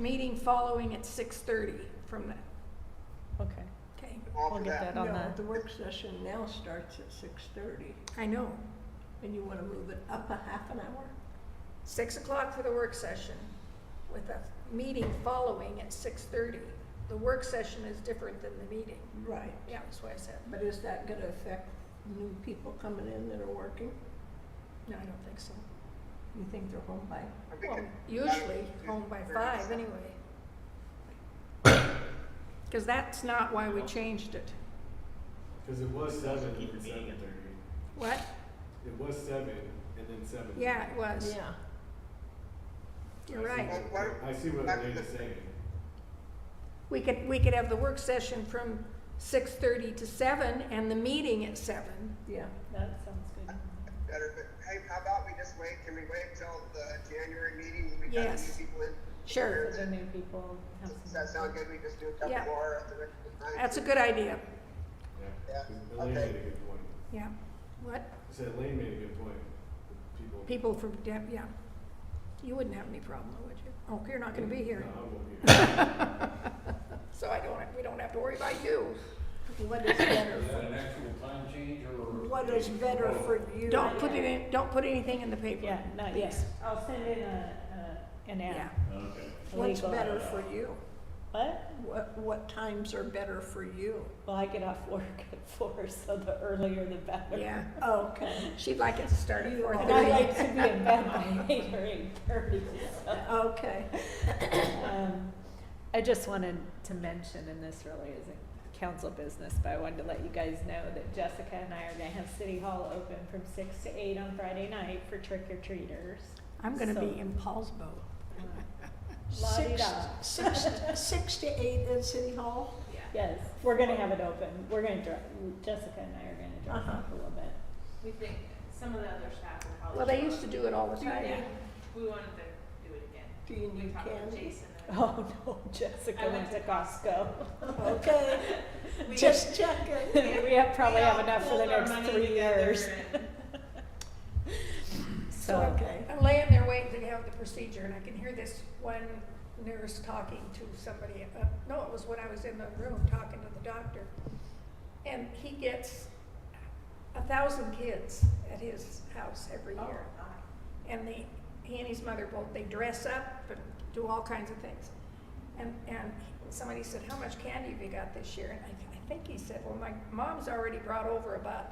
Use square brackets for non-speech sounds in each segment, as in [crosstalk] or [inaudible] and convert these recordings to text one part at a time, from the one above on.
meeting following at six thirty from that, Okay, okay? we'll offer get that. that on No, the, the work session now starts at six thirty, I know, and you wanna move it up a half an hour? six o'clock for the work session with a meeting following at six thirty. The work session is different than the meeting. Right, Yeah, that's what I said. but is that gonna affect new people coming in that are working? No, I don't think so. You think they're home by? I think Well, it- usually that- home by there is- five anyway. Because that's not why we changed it. Because it was seven and Keep the then meeting seven at thirty. What? It was seven and then seven. Yeah, it was. You're right. Well, why- I see what why- Elena's saying. We could, we could have the work session from six thirty to seven and the meeting at seven. Yeah, that sounds good. Better, but hey, how about we just wait? Can we wait till the January meeting when we got Yes. new people in? Sure, For the new people, have Does some. that sound good? We just do a couple Yeah. more at the next time. that's a good idea. Yeah, 'Cause Elena okay. made a good point. Yeah. What? I said Elaine made a good point. People. People from, Dep- yeah. You wouldn't have any problem, would you? Oh, you're not gonna be here. No, I won't be here. So I don't, we don't have to worry about you. what is better, Is that an actual time change or? what is better for you? Don't put it in, don't put anything in the paper. Yeah, not yet. I'll send in a, a, an Yeah. ad. Okay. a What's legal- better for you? What? What, what times are better for you? Well, I get off work at four, so the earlier the better. Yeah, Okay, she'd like it to start at You four are- And [laughs] I thirty. like to be in bed by eight or eight thirty, so. okay. [coughs] Um, I just wanted to mention, and this really isn't council business, but I wanted to let you guys know that Jessica and I are gonna have City Hall open from six to eight on Friday night for trick or treaters. I'm gonna So- be in Paulsbo. Six, La-di-da. six, six to eight at City Hall? Yes, we're gonna have it open, we're gonna dress, Jessica and I are gonna dress Uh-huh. up a little bit. We think some of the other staff will probably. Well, they show used to do it all the Do you time. Yeah, need, we wanted to do it again. do you We need talked with candy? Jason. and- Oh, no, Jessica I went went to to Costco. Okay, We- just checking. We have, probably we have all enough for the pulled our next money three together years, and- so, Okay. I'm laying there waiting to have the procedure, and I can hear this one nurse talking to somebody. uh, No, it was when I was in the room talking to the doctor. And he gets a thousand kids at his house every year. And they, he and his mother both, they dress up and do all kinds of things. And, and somebody said, how much candy have you got this year? And I, I think he said, well, my mom's already brought over about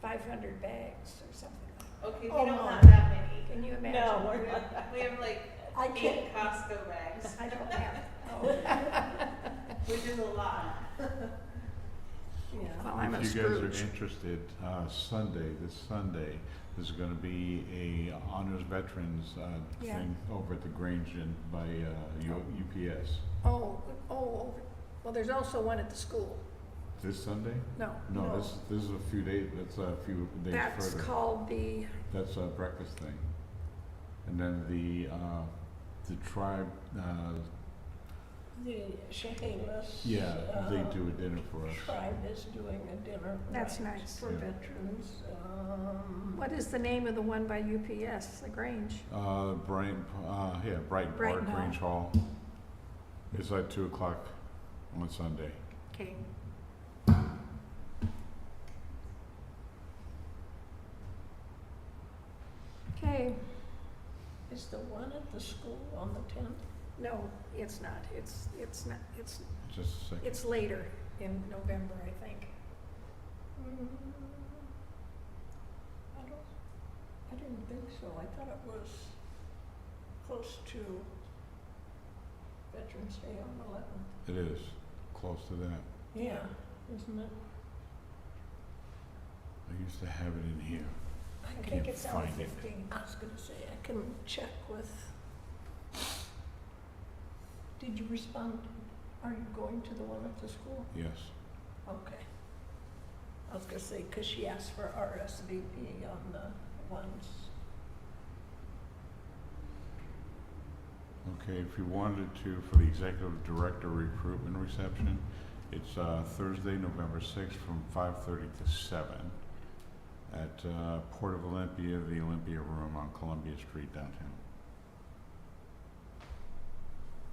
five hundred bags or something. [laughs] Okay, we Oh, don't my. have that many. Can you imagine? no, We we're not. have, we have like I eight can't, Costco bags, I don't have, oh. which is a lot. yeah. [laughs] Well, I'm a If you guys Scrooge. are interested, uh, Sunday, this Sunday, there's gonna be a honors veterans, uh, Yeah. thing over at the Grange and by, uh, U- UPS. Oh, oh, well, there's also one at the school. This Sunday? No. No, this, this is a few days, that's a few days further. That's called the, That's a breakfast thing. And then the, uh, the tribe, uh, The Chehalis. yeah, they uh, do a dinner for us. Tribe is doing a dinner. That's right, nice. For Yeah. veterans, um. what is the name of the one by UPS, the Grange? Uh, Bright, uh, yeah, Bright Park, Brighton Hall. Grange Hall. It's at two o'clock on Sunday. Okay. Okay, Is the one at the school on the tenth? no, it's not, it's, it's not, it's, Just a second. it's later in November, I think. Mm, I don't, I didn't think so. I thought it was close to Veterans Day on the eleventh. It is, close to that. Yeah, isn't it? I used to have it in here. I Can't think it's on find the it. fifteenth. I was gonna say, I can check with. Did you respond? Are you going to the one at the school? Yes, Okay. I was gonna say, cause she asked for RSVP on the ones. okay, if you wanted to, for the executive director recruitment reception, it's uh, Thursday, November sixth, from five thirty to seven at uh, Port of Olympia, the Olympia Room on Columbia Street downtown.